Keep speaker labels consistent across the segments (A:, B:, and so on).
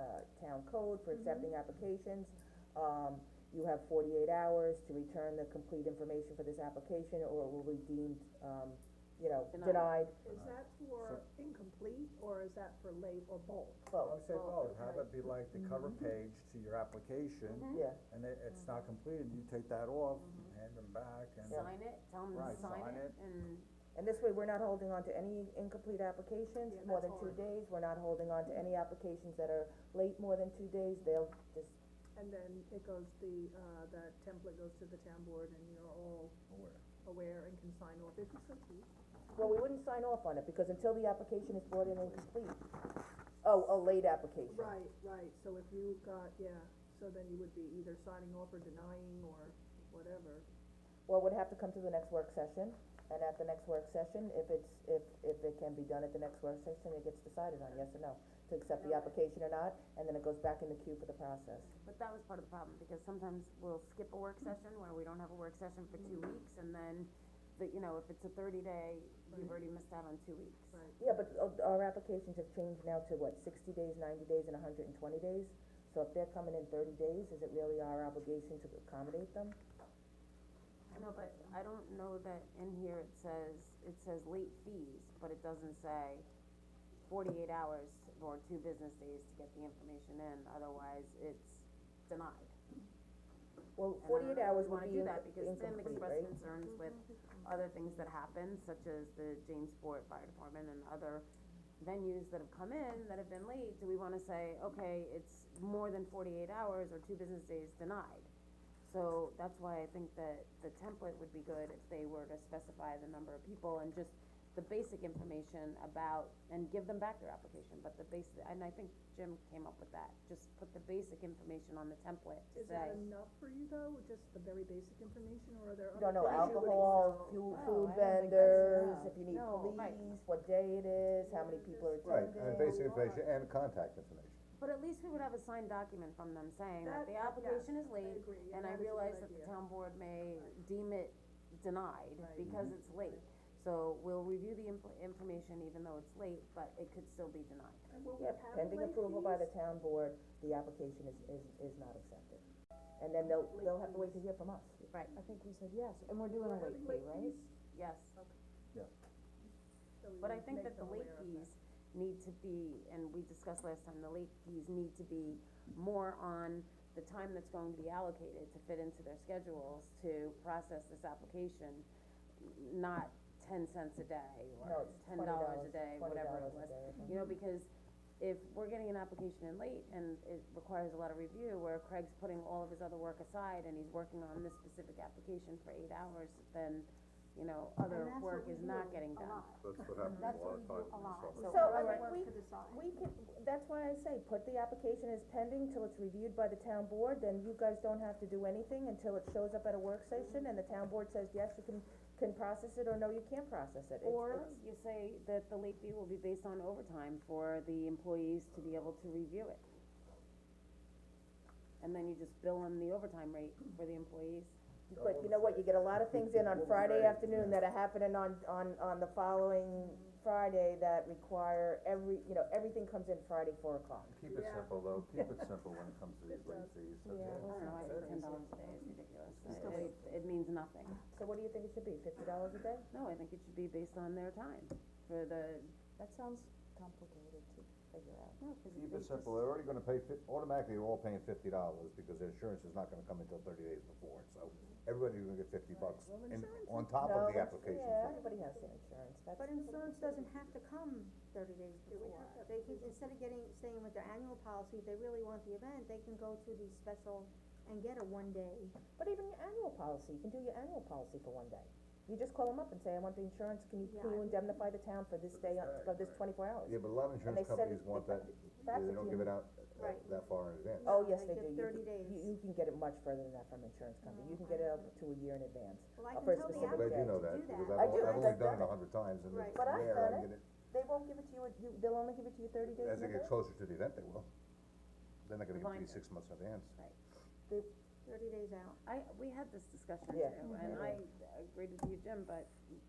A: uh, town code for accepting applications. Um, you have forty-eight hours to return the complete information for this application, or it will be deemed, um, you know,
B: Denied.
A: denied,
C: Is that for incomplete, or is that for late, or both?
D: Oh, I would say both, have it be like the cover page to your application,
A: Mm-hmm. yeah,
D: and it, it's not completed, you take that off, hand them back, and.
B: Sign it, tell them
D: Right,
B: to sign
D: sign
B: it,
D: it.
B: and
A: and this way, we're not holding on to any incomplete applications
C: Yeah,
A: more
C: that's
A: than two
C: hard.
A: days, we're not holding on to any applications that are late more than two days, they'll just
C: And then it goes, the, uh, the template goes to the town board, and you're all aware and can sign off if you so choose.
A: Well, we wouldn't sign off on it, because until the application is brought in and complete, oh, a late application.
C: Right, right, so if you got, yeah, so then you would be either signing off or denying, or whatever.
A: Well, it would have to come to the next work session, and at the next work session, if it's, if, if it can be done at the next work session, it gets decided on, yes or no, to accept the application or not, and then it goes back in the queue for the process.
B: But that was part of the problem, because sometimes we'll skip a work session where we don't have a work session for two weeks, and then, the you know, if it's a thirty day, you've already missed out on two weeks.
C: Right.
A: Yeah, but uh, our applications have changed now to what, sixty days, ninety days, and hundred and twenty days? So if they're coming in thirty days, is it really our obligation to accommodate them?
B: No, but I don't know that in here it says, it says late fees, but it doesn't say forty-eight hours or two business days to get the information in, otherwise it's denied.
A: Well,
B: And I don't
A: forty-eight
B: know if
A: hours
B: we
A: would
B: wanna
A: be
B: do
A: in-
B: that, because Tim
A: incomplete,
B: expressed
A: right?
B: concerns with other things that happen, such as the Jamesport Fire Department and other venues that have come in that have been late, do we wanna say, okay, it's more than forty-eight hours or two business days denied? So that's why I think that the template would be good if they were to specify the number of people and just the basic information about, and give them back their application, but the basic, and I think Jim came up with that, just put the basic information on the template to
C: Is
B: say.
C: that enough for you, though, just the very basic information, or are there
A: You
C: other
A: don't know
C: things you would
A: alcohol,
C: excel?
A: food, food
B: No, I don't think that's
A: vendors,
B: enough.
A: if you need
B: No, right.
A: police, what day it is, how many people are
E: Right,
A: attending.
E: and basic information and contact information.
B: But at least we would have a signed document from them saying that
C: That-
B: the
C: yeah,
B: application is
C: I
B: late,
C: agree,
B: and
C: and
B: I
C: that is a good
B: realize that the
C: idea.
B: town board may deem it denied
C: Right. Mm-hmm.
B: because it's late. So we'll review the info- information even though it's late, but it could still be denied.
C: And will we
A: Yep,
C: have
A: pending
C: late
A: approval by
C: fees?
A: the town board, the application is, is, is not accepted. And then they'll, they'll have to wait to hear from us.
B: Right,
F: I think we said yes, and we're doing
C: We're
F: a late
C: having
F: fee, right?
C: fees,
B: yes,
C: so we
B: but I
C: would
B: think
C: make
B: that the
C: them
B: late
C: aware of
B: fees need to be, and we discussed last time, the late fees need to be more on the time that's going to be allocated to fit into their schedules to process this application, n- not ten cents a day
A: No,
B: or
A: it's
B: ten dollars a day, whatever it was.
A: $20 a day, I think.
B: You know, because if we're getting an application in late and it requires a lot of review, where Craig's putting all of his other work aside and he's working on this specific application for eight hours, then, you know, other
G: that's
B: work
G: what
B: is
G: we
B: not
G: do
B: getting
G: a
B: done.
G: lot.
E: That's what happens
G: That's what we do a lot.
A: So,
B: So,
A: I
B: alright.
A: mean, we,
G: to decide.
A: we can, that's why I say, put the application as pending till it's reviewed by the town board, then you guys don't have to do anything until it shows up at a work session, and the town board says, yes, you can, can process it, or no, you can't process it. It's-
B: Or
A: it's-
B: you say that the late fee will be based on overtime for the employees to be able to review it. And then you just bill them the overtime rate for the employees.
A: But you know what, you get a lot of things in on Friday afternoon that are happening on, on, on the following Friday that require every, you know, everything comes in Friday, four o'clock.
E: Keep it
C: Yeah.
E: simple though, keep it simple when it comes to these late fees, so,
B: I
E: yeah.
B: don't know, I think ten dollars a day is ridiculous. It, it means nothing.
A: So what do you think it should be, fifty dollars a day?
B: No, I think it should be based on their time for the,
F: That sounds complicated to figure out.
B: no, cause
E: Keep
B: they
E: it
B: just-
E: simple, they're already gonna pay fif- automatically, they're all paying fifty dollars, because their insurance is not gonna come until thirty days before, so everybody's gonna get fifty bucks
C: Well,
E: in,
C: insurance
E: on top of the application
A: Yeah,
E: fee.
A: everybody has their insurance, that's.
G: But insurance doesn't have to come thirty days
C: we
G: before.
C: have that
G: They can, instead of getting, staying with their annual policy, if they really want the event, they can go to the special and get a one day.
A: But even your annual policy, you can do your annual policy for one day. You just call them up and say, I want the insurance, can you, can you
G: Yeah.
A: indemnify the town for this day, uh, for this twenty-four hours?
E: Yeah, but a lot of
A: they
E: insurance
A: said
E: companies
A: it-
E: want that,
A: that's
E: they
A: what
E: don't
A: you-
E: give it out uh,
G: Right.
E: that far in advance.
A: Oh, yes,
G: They
A: they do,
G: give
A: you,
G: 30
A: can- you,
G: days.
A: you can get it much further than that from insurance company,
F: Oh,
A: you can get it up to a year in advance. Uh,
G: Well, I can
A: for a
G: tell the
A: specific
E: But I do
A: day.
E: know
G: to
E: that,
G: do that.
E: because
A: I
E: I've,
A: do,
E: I've only
A: I've
E: done
A: done
E: it a hundred times, and
G: Right.
E: it's
A: But I've
E: rare
A: done
E: I
A: it.
E: get it,
A: They won't give it to you, you, they'll only give it to you thirty days
E: as
A: in
E: they get
A: advance.
E: closer to the event, they will. They're not gonna give it to
B: Reminder.
E: you six months in advance.
G: Thirty days out.
B: I, we had this discussion
A: Yeah.
B: too, and I agreed with you, Jim, but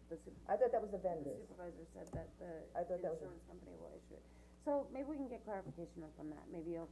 B: the su-
A: I thought that was the
B: the
A: vendors.
B: supervisor said that the
A: I thought that was a-
B: insurance company will issue it. So maybe we can get clarification from that, maybe you'll